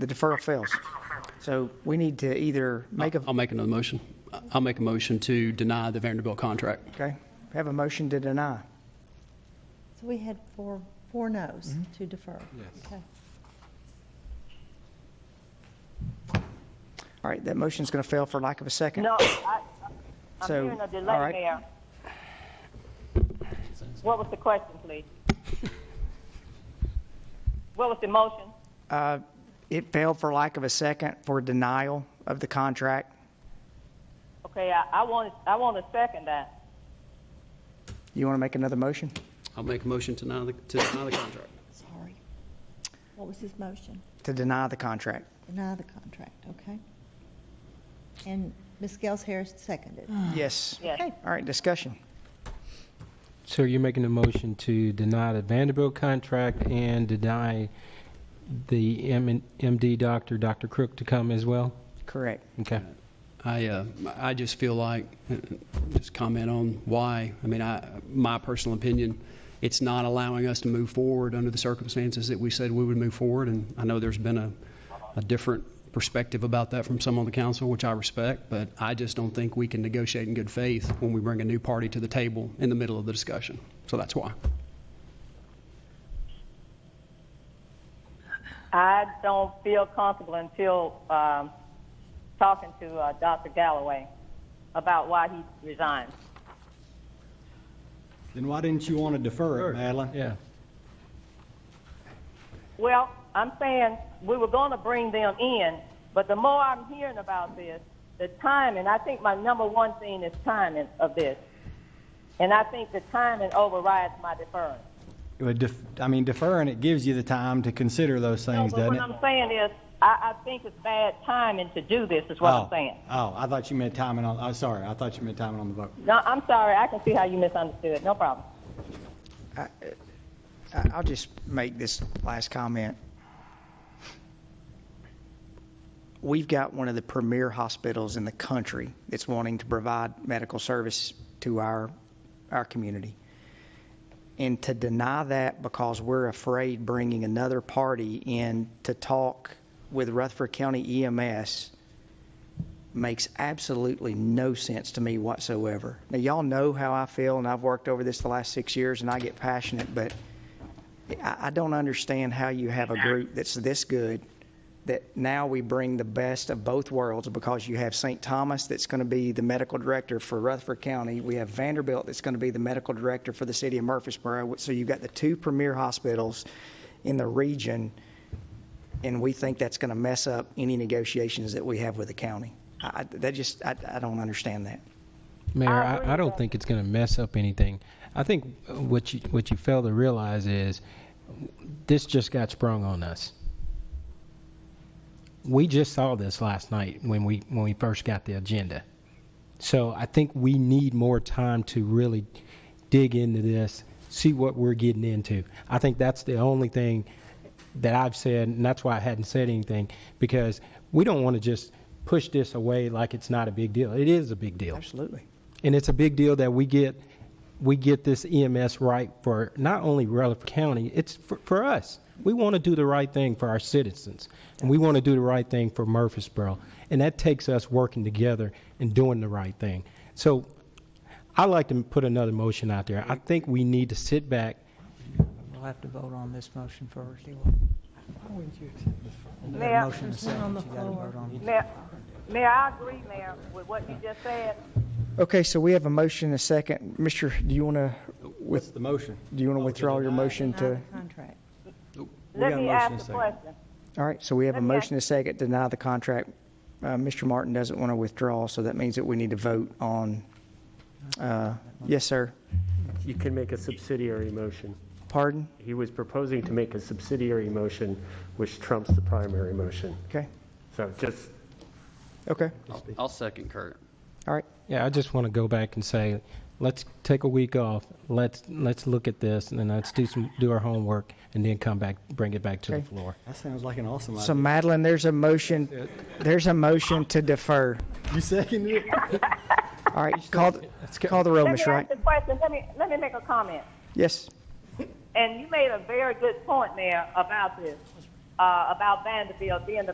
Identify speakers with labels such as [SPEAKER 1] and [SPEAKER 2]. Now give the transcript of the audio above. [SPEAKER 1] The deferral fails. So we need to either make a,
[SPEAKER 2] I'll make another motion. I'll make a motion to deny the Vanderbilt contract.
[SPEAKER 1] okay, have a motion to deny.
[SPEAKER 3] So we had four, four no's to defer. Yes.
[SPEAKER 1] All right, that motion's going to fail for lack of a second.
[SPEAKER 4] No, I, I'm
[SPEAKER 1] So,
[SPEAKER 4] hearing a
[SPEAKER 1] all
[SPEAKER 4] delay,
[SPEAKER 1] right.
[SPEAKER 4] Mayor. What was the question, please? What was the motion?
[SPEAKER 1] It failed for lack of a second for denial of the contract.
[SPEAKER 4] Okay, I, I want, I want to second that.
[SPEAKER 1] You want to make another motion?
[SPEAKER 2] I'll make a motion to deny the, to deny the contract.
[SPEAKER 3] Sorry. What was his motion?
[SPEAKER 1] To deny the contract.
[SPEAKER 3] Deny the contract, okay? And Ms. Gels Harris seconded.
[SPEAKER 1] Yes.
[SPEAKER 4] Yes.
[SPEAKER 3] Okay.
[SPEAKER 1] All right, discussion.
[SPEAKER 5] So you're making a motion to deny the Vanderbilt contract and deny the M and- MD doctor, Dr. Crook, to come as well?
[SPEAKER 1] Correct.
[SPEAKER 5] Okay.
[SPEAKER 2] I, uh, I just feel like, uh, just comment on why. I mean, I, my personal opinion, it's not allowing us to move forward under the circumstances that we said we would move forward. And I know there's been a, a different perspective about that from some on the council, which I respect, but I just don't think we can negotiate in good faith when we bring a new party to the table in the middle of the discussion. So that's why.
[SPEAKER 4] I don't feel comfortable until, um, talking to, uh, Dr. Galloway about why he resigned.
[SPEAKER 6] Then why didn't you want to defer it, Madeline?
[SPEAKER 5] Yeah.
[SPEAKER 4] Well, I'm saying we were going to bring them in, but the more I'm hearing about this, the timing, I think my number one thing is timing of this. And I think the timing overrides my deference.
[SPEAKER 6] It would def- I mean, deferring it gives you the time to consider those
[SPEAKER 4] No,
[SPEAKER 6] things,
[SPEAKER 4] but
[SPEAKER 6] doesn't
[SPEAKER 4] what
[SPEAKER 6] it?
[SPEAKER 4] I'm saying is, I, I think it's bad timing to do this, is what
[SPEAKER 6] Oh.
[SPEAKER 4] I'm saying.
[SPEAKER 6] Oh, I thought you meant timing on, I'm sorry, I thought you meant timing on the vote.
[SPEAKER 4] No, I'm sorry, I can see how you misunderstood, no problem.
[SPEAKER 1] I- I'll just make this last comment. We've got one of the premier hospitals in the country that's wanting to provide medical service to our, our community. And to deny that because we're afraid bringing another party in to talk with Rutherford County EMS makes absolutely no sense to me whatsoever. Now, y'all know how I feel, and I've worked over this the last six years, and I get passionate, but I, I don't understand how you have a group that's this good, that now we bring the best of both worlds because you have St. Thomas that's going to be the medical director for Rutherford County. We have Vanderbilt that's going to be the medical director for the city of Murfreesboro. So you've got the two premier hospitals in the region, and we think that's going to mess up any negotiations that we have with the county. I, I- that just, I, I don't understand that.
[SPEAKER 5] Mayor,
[SPEAKER 4] I agree
[SPEAKER 5] I, I
[SPEAKER 4] with
[SPEAKER 5] don't
[SPEAKER 4] that.
[SPEAKER 5] think it's going to mess up anything. I think what you, what you fail to realize is this just got sprung on us. We just saw this last night when we, when we first got the agenda. So I think we need more time to really dig into this, see what we're getting into. I think that's the only thing that I've said, and that's why I hadn't said anything, because we don't want to just push this away like it's not a big deal. It is a big deal.
[SPEAKER 1] Absolutely.
[SPEAKER 5] And it's a big deal that we get, we get this EMS right for not only Rutherford County, it's for, for us. We want to do the right thing for our citizens, and we want to do the right thing for Murfreesboro. And that takes us working together and doing the right thing. So I'd like to put another motion out there. I think we need to sit back.
[SPEAKER 7] We'll have to vote on this motion first.
[SPEAKER 4] Mayor.
[SPEAKER 7] Another motion and a
[SPEAKER 3] There's one on
[SPEAKER 7] second,
[SPEAKER 3] the
[SPEAKER 7] you gotta
[SPEAKER 3] floor.
[SPEAKER 7] vote on it.
[SPEAKER 4] Mayor, Mayor, I agree, Mayor, with what you just said.
[SPEAKER 1] Okay, so we have a motion, and a second. Mr., do you want to,
[SPEAKER 6] What's the motion?
[SPEAKER 1] do you want to withdraw your motion
[SPEAKER 3] Deny
[SPEAKER 1] to?
[SPEAKER 3] the contract.
[SPEAKER 6] got
[SPEAKER 4] Let me
[SPEAKER 6] a motion and a
[SPEAKER 4] ask the
[SPEAKER 6] second.
[SPEAKER 4] question.
[SPEAKER 1] All right, so we have a
[SPEAKER 4] Okay.
[SPEAKER 1] motion and a second to deny the contract. Uh, Mr. Martin doesn't want to withdraw, so that means that we need to vote on, uh, yes, sir.
[SPEAKER 8] You can make a subsidiary motion.
[SPEAKER 1] Pardon?
[SPEAKER 8] He was proposing to make a subsidiary motion, which trumps the primary motion.
[SPEAKER 1] Okay,
[SPEAKER 8] So just
[SPEAKER 1] okay,
[SPEAKER 2] I'll second Kurt.
[SPEAKER 1] all right.
[SPEAKER 5] Yeah, I just want to go back and say, let's take a week off. Let's, let's look at this, and then let's do some, do our homework, and then come back, bring it back to the
[SPEAKER 1] Okay.
[SPEAKER 5] floor.
[SPEAKER 6] That sounds like an awesome
[SPEAKER 1] So
[SPEAKER 6] idea.
[SPEAKER 1] Madeline, there's a motion, there's a motion to defer.
[SPEAKER 6] You seconded it?
[SPEAKER 1] All right, call, the- call the roll,
[SPEAKER 4] Let me
[SPEAKER 1] Ms. Wright.
[SPEAKER 4] ask the question, let me, let me make a comment.
[SPEAKER 1] Yes,
[SPEAKER 4] And you made a very good point, Mayor, about this, uh, about Vanderbilt being the